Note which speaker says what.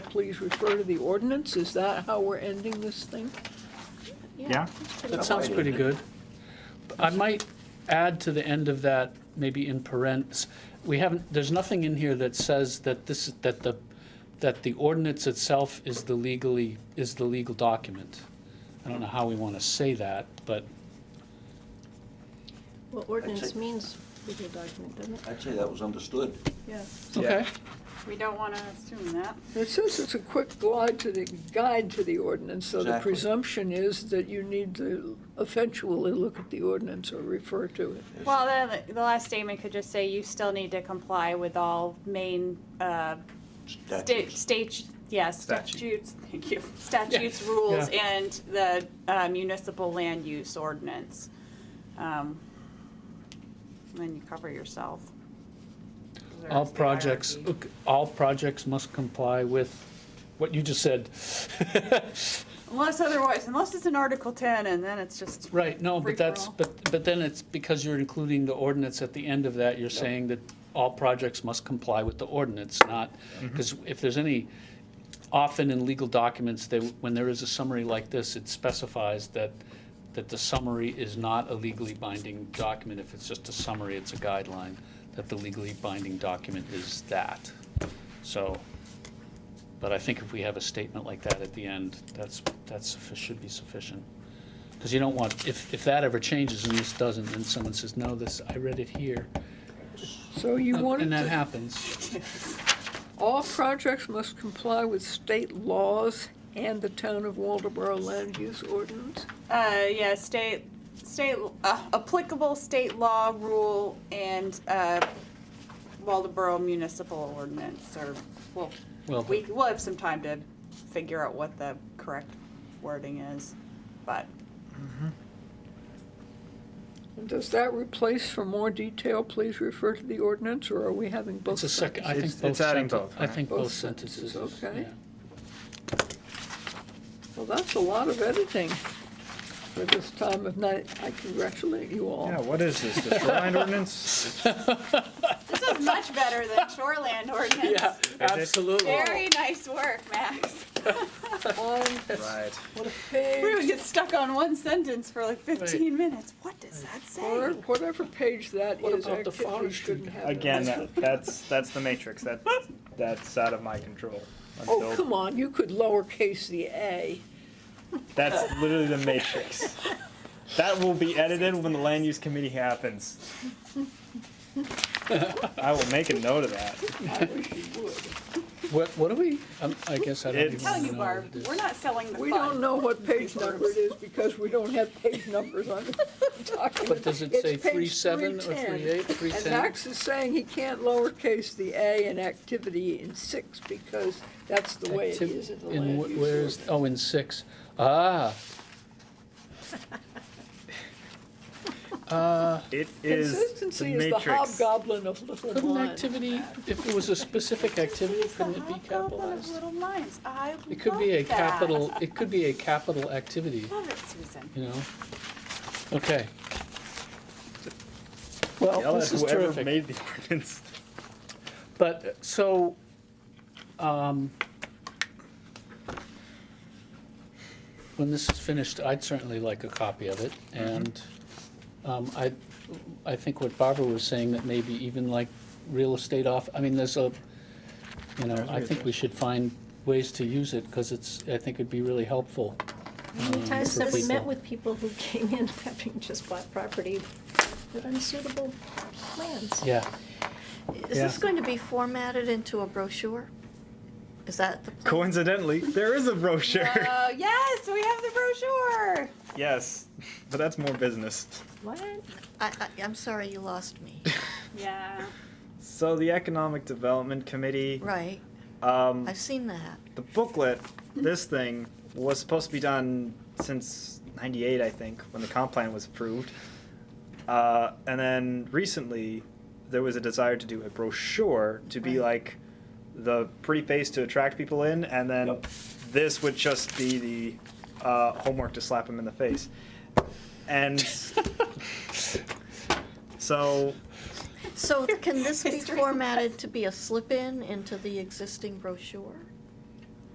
Speaker 1: please refer to the ordinance? Is that how we're ending this thing?
Speaker 2: Yeah?
Speaker 3: That sounds pretty good. I might add to the end of that, maybe in parents, we haven't, there's nothing in here that says that this, that the, that the ordinance itself is the legally, is the legal document. I don't know how we want to say that, but
Speaker 4: Well, ordinance
Speaker 5: Actually-
Speaker 4: means legal document, doesn't it?
Speaker 5: I'd say that was understood.
Speaker 4: Yeah.
Speaker 3: okay.
Speaker 6: We don't want to assume that.
Speaker 1: It says it's a quick guide to the, guide to the ordinance, so the
Speaker 5: Exactly.
Speaker 1: presumption is that you need to eventually look at the ordinance or refer to it.
Speaker 6: Well, the, the last statement could just say you still need to comply with all main, uh, sta-
Speaker 5: Statutes.
Speaker 6: state, yeah, statutes, thank you, statutes, rules, and the uh, municipal land use ordinance. Um, and Then you cover yourself. 'Cause
Speaker 3: All
Speaker 6: there's the
Speaker 3: projects,
Speaker 6: hierarchy.
Speaker 3: ok, all projects must comply with what you just said.
Speaker 6: Unless otherwise, unless it's in Article ten, and then it's just.
Speaker 3: Right, no,
Speaker 6: free
Speaker 3: but
Speaker 6: for
Speaker 3: that's,
Speaker 6: all.
Speaker 3: but, but then it's because you're including the ordinance at the end of that, you're saying that all projects must comply with the ordinance, not, because if there's any, often in legal documents, they, when there is a summary like this, it specifies that, that the summary is not a legally binding document. If it's just a summary, it's a guideline, that the legally binding document is that. So, but I think if we have a statement like that at the end, that's, that's, suffi- should be sufficient. Because you don't want, if, if that ever changes and this doesn't, then someone says, no, this, I read it here.
Speaker 1: So you wanted
Speaker 3: Uh, And that
Speaker 1: to,
Speaker 3: happens.
Speaker 1: all projects must comply with state laws and the town of Waldeboro land use ordinance?
Speaker 6: Uh, yeah, state, state, uh, applicable state law, rule, and, uh, Waldeboro municipal ordinance, or, well,
Speaker 3: Well,
Speaker 6: we, we'll have some time to figure out what the correct wording is, but,
Speaker 1: And does that replace, for more detail, please refer to the ordinance, or are we having both?
Speaker 3: it's a second, I think
Speaker 2: It's-
Speaker 3: both.
Speaker 2: it's adding
Speaker 3: senten-
Speaker 2: both,
Speaker 3: I
Speaker 2: right?
Speaker 3: think
Speaker 1: Both
Speaker 3: both sentences.
Speaker 1: sentences, okay.
Speaker 3: yeah.
Speaker 1: Well, that's a lot of editing for this time of night. I congratulate you all.
Speaker 2: Yeah, what is this, the shoreline ordinance?
Speaker 6: this is much better than shoreland
Speaker 3: Yeah,
Speaker 6: ordinance.
Speaker 3: absolutely.
Speaker 6: Very nice work, Max.
Speaker 1: On
Speaker 2: Right.
Speaker 1: what a
Speaker 6: We would
Speaker 1: page,
Speaker 6: get stuck on one sentence for like fifteen minutes, what does that
Speaker 1: or
Speaker 6: say?
Speaker 1: whatever page that
Speaker 3: What
Speaker 1: is,
Speaker 3: about
Speaker 1: I
Speaker 3: the
Speaker 1: typically
Speaker 3: forestry
Speaker 1: shouldn't
Speaker 3: guy?
Speaker 1: have. it.
Speaker 2: Again,
Speaker 3: uh,
Speaker 2: that- that's, that's the matrix, that, that's out of my control.
Speaker 1: Oh,
Speaker 2: Until-
Speaker 1: come on, you could lowercase the A.
Speaker 2: That's literally the matrix. That will be edited when the land use committee happens. I will make a note of that.
Speaker 1: I wish you would.
Speaker 3: What, what are we, um, I guess I don't even
Speaker 2: It's-
Speaker 6: Tell you,
Speaker 3: know what
Speaker 6: Barb,
Speaker 3: it is.
Speaker 6: we're not selling the
Speaker 1: We don't
Speaker 6: fun.
Speaker 1: know what page number it is because we don't have page numbers on the document.
Speaker 3: But does it
Speaker 1: It's
Speaker 3: say
Speaker 1: page
Speaker 3: three seven or
Speaker 1: 310.
Speaker 3: three eight, three
Speaker 1: And
Speaker 3: ten?
Speaker 1: Max is saying he can't lowercase the A in activity in six because that's the way it is in the land use
Speaker 3: Where's,
Speaker 1: ordinance.
Speaker 3: oh, in six, ah,
Speaker 2: It is the
Speaker 1: Consistency is the
Speaker 2: matrix.
Speaker 1: hobgoblin of little
Speaker 3: couldn't
Speaker 1: minds.
Speaker 3: activity, if it was a specific activity,
Speaker 6: He's the
Speaker 3: couldn't it be
Speaker 6: hobgoblin of
Speaker 3: capitalized?
Speaker 6: little minds, I love that.
Speaker 3: It could be a capital, it could be a capital activity.
Speaker 6: Love it, Susan.
Speaker 3: you know? Okay.
Speaker 2: Yell
Speaker 3: Well,
Speaker 2: at
Speaker 3: Oh, this is
Speaker 2: whoever
Speaker 3: terrific.
Speaker 2: made the ordinance.
Speaker 3: But, uh, so, um, when this is finished, I'd certainly like a copy of it. And um, I, I think what Barbara was saying, that maybe even like real estate off, I mean, there's a, you know, I think we should find ways to use it because it's, I think it'd be really helpful.
Speaker 4: How many times
Speaker 3: for
Speaker 4: have we met
Speaker 3: people.
Speaker 4: with people who came in having just bought property with unsuitable plans?
Speaker 3: Yeah.
Speaker 7: Is
Speaker 3: Yeah.
Speaker 7: this going to be formatted into a brochure? Is that the? plan?
Speaker 2: Coincidentally, there is a brochure.
Speaker 6: Oh, yes, we have the brochure.
Speaker 2: Yes, but that's more business.
Speaker 4: What?
Speaker 7: I, I, I'm sorry, you lost me.
Speaker 6: Yeah.
Speaker 2: So the Economic Development Committee,
Speaker 7: Right,
Speaker 2: um,
Speaker 7: I've seen that.
Speaker 2: the booklet, this thing was supposed to be done since '98, I think, when the comp plan was approved. Uh, and then recently, there was a desire to do a brochure to be
Speaker 7: Right.
Speaker 2: like the pretty face to attract people in, and then
Speaker 5: Yep.
Speaker 2: this would just be the uh, homework to slap them in the face. And so
Speaker 7: So can this be
Speaker 6: History
Speaker 7: formatted to be a slip-in into the existing brochure?